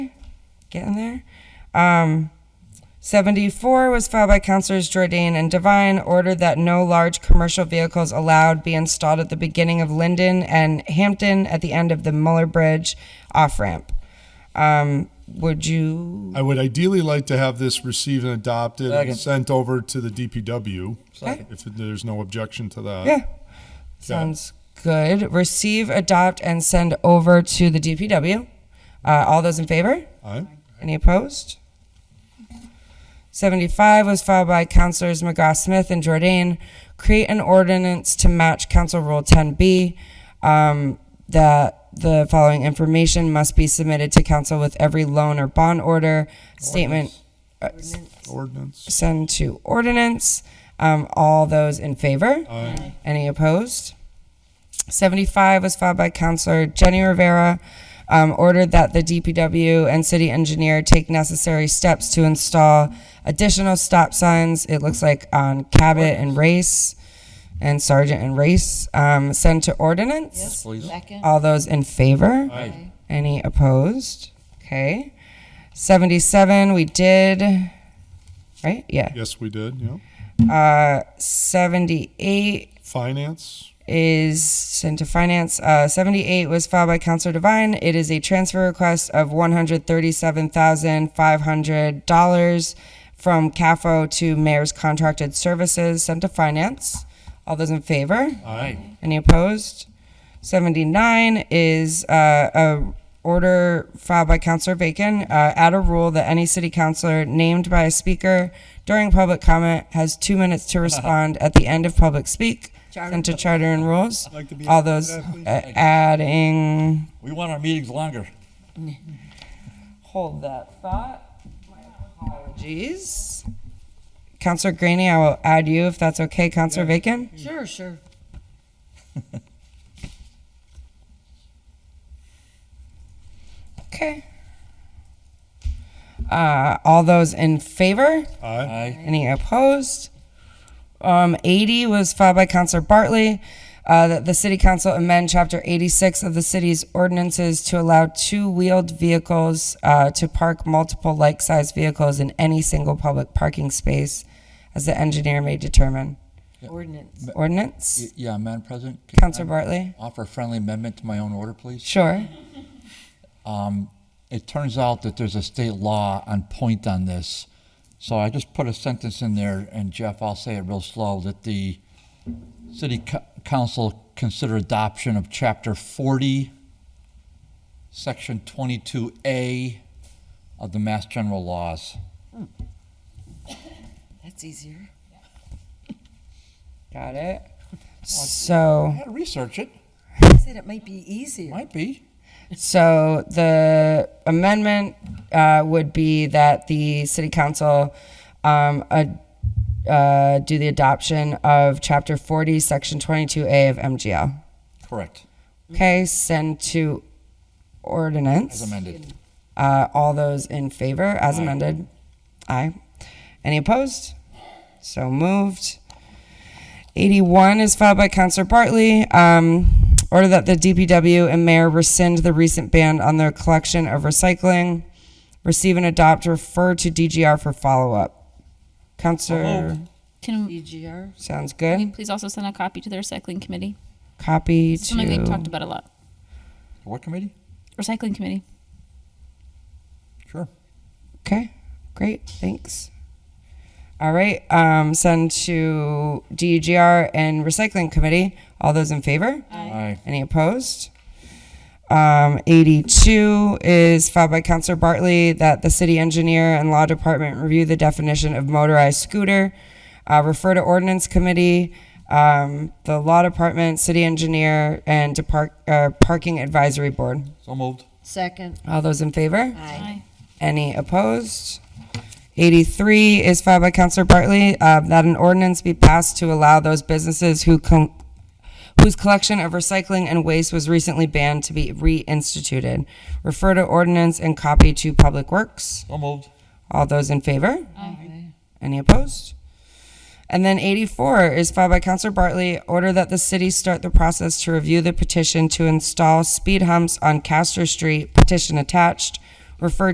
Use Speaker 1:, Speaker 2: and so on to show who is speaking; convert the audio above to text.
Speaker 1: getting there. Um, 74 was filed by Councilors Jordan and Devine, ordered that no large commercial vehicles allowed be installed at the beginning of Linden and Hampton at the end of the Muller Bridge off-ramp. Um, would you,
Speaker 2: I would ideally like to have this received and adopted and
Speaker 3: Second.
Speaker 2: sent over to the DPW,
Speaker 3: Second.
Speaker 2: if there's no objection to that.
Speaker 1: yeah, sounds good. Receive, adopt, and send over to the DPW. Uh, all those in favor?
Speaker 2: Aye.
Speaker 1: Any opposed? 75 was filed by Councilors McGrath-Smith and Jordan. Create an ordinance to match Council Rule 10B um, that the following information must be submitted to council with every loan or bond order, statement, uh, s-
Speaker 2: Ordinance.
Speaker 1: send to ordinance. Um, All those in favor?
Speaker 2: Aye.
Speaker 1: Any opposed? 75 was filed by Counselor Jenny Rivera, um, ordered that the DPW and city engineer take necessary steps to install additional stop signs, it looks like on Cabot and Race, and Sergeant and Race, um, send to ordinance?
Speaker 3: Please.
Speaker 4: Second.
Speaker 1: All those in favor?
Speaker 2: Aye.
Speaker 1: Any opposed? Okay. 77, we did, right? Yeah.
Speaker 2: Yes, we did, yeah.
Speaker 1: Uh, 78
Speaker 2: Finance,
Speaker 1: is sent to finance. Uh, 78 was filed by Counselor Devine. It is a transfer request of $137,500 from CAFO to Mayor's Contracted Services sent to finance. All those in favor?
Speaker 2: aye.
Speaker 1: Any opposed? 79 is uh, a order filed by Counselor Bacon, uh, add a rule that any city councillor named by a speaker during public comment has two minutes to respond at the end of public speak. Sent to charter and rules.
Speaker 2: Like to be
Speaker 1: All
Speaker 2: a part of
Speaker 1: those
Speaker 2: that,
Speaker 1: uh, adding,
Speaker 3: We want our meetings longer.
Speaker 1: hold that thought. My apologies. Counselor Graney, I will add you if that's okay. Counselor Bacon?
Speaker 4: Sure, sure.
Speaker 1: Okay. Uh, all those in favor?
Speaker 2: Aye.
Speaker 3: Aye.
Speaker 1: Any opposed? Um, 80 was filed by Counselor Bartley, uh, that the city council amend chapter 86 of the city's ordinances to allow two-wheeled vehicles, uh, to park multiple like-sized vehicles in any single public parking space, as the engineer may determine.
Speaker 4: Ordinance.
Speaker 1: Ordinance?
Speaker 3: Y- Yeah, Madam President? can I
Speaker 1: Counselor Bartley?
Speaker 3: Offer a friendly amendment to my own order, please.
Speaker 1: Sure.
Speaker 3: Um, It turns out that there's a state law on point on this. So I just put a sentence in there, and Jeff, I'll say it real slow, that the city co- council consider adoption of chapter 40, section 22A of the Mass General Laws.
Speaker 4: That's easier.
Speaker 1: Got it. So.
Speaker 3: I had to research it.
Speaker 4: I said it might be easier.
Speaker 3: Might be.
Speaker 1: So the amendment uh, would be that the city council um, ad- uh, do the adoption of Chapter 40, Section 22A of MGL.
Speaker 3: Correct,
Speaker 1: Okay, send to
Speaker 3: as
Speaker 1: ordinance.
Speaker 3: amended.
Speaker 1: Uh, All those in favor, as amended? Aye. Any opposed? So moved. 81 is filed by Counselor Bartley. Um, Order that the DPW and mayor rescind the recent ban on their collection of recycling. Receive and adopt, refer to DGR for follow-up. Counselor,
Speaker 5: Can,
Speaker 4: EGR.
Speaker 1: sounds
Speaker 5: can we
Speaker 1: good.
Speaker 5: please also send a copy to the recycling committee?
Speaker 1: Copy
Speaker 5: It's something we've talked
Speaker 1: to,
Speaker 5: about a lot.
Speaker 3: What committee?
Speaker 5: Recycling committee.
Speaker 3: Sure.
Speaker 1: okay, great, thanks. All right, um, send to DGR and Recycling Committee. All those in favor?
Speaker 3: Aye.
Speaker 1: Any opposed? Um, 82 is filed by Counselor Bartley that the city engineer and law department review the definition of motorized scooter, uh, refer to ordinance committee, um, the law department, city engineer, and depart, uh, parking advisory board.
Speaker 3: So moved.
Speaker 4: Second.
Speaker 1: All those in favor?
Speaker 4: Aye.
Speaker 1: Any opposed? 83 is filed by Counselor Bartley, uh, that an ordinance be passed to allow those businesses who com- whose collection of recycling and waste was recently banned to be reinstituted. Refer to ordinance and copy to Public Works.
Speaker 3: So moved.
Speaker 1: All those in favor? Any opposed? And then 84 is filed by Counselor Bartley, order that the city start the process to review the petition to install speed humps on Castor Street, petition attached. Refer